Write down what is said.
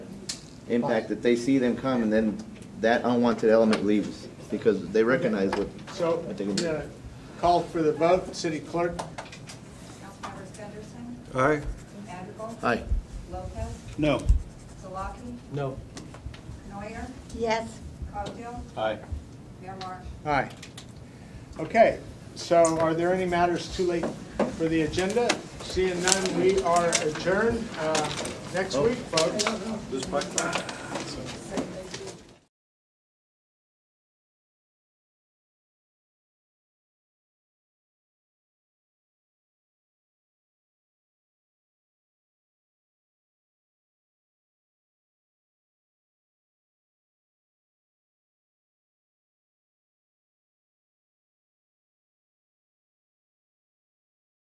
impact that they see them come, and then that unwanted element leaves, because they recognize what, So, I think I'm it'll be- gonna call for the vote, city clerk? Councilmembers Henderson, Aye. Madrigal. Aye. Lopez, No. Solaki, No. Neuer, Yes. Cogdill, Aye. Mayor Marsh. Aye. Okay, so are there any matters too late for the agenda? Oh. Seeing none, we are adjourned. Uh, Next week, folks.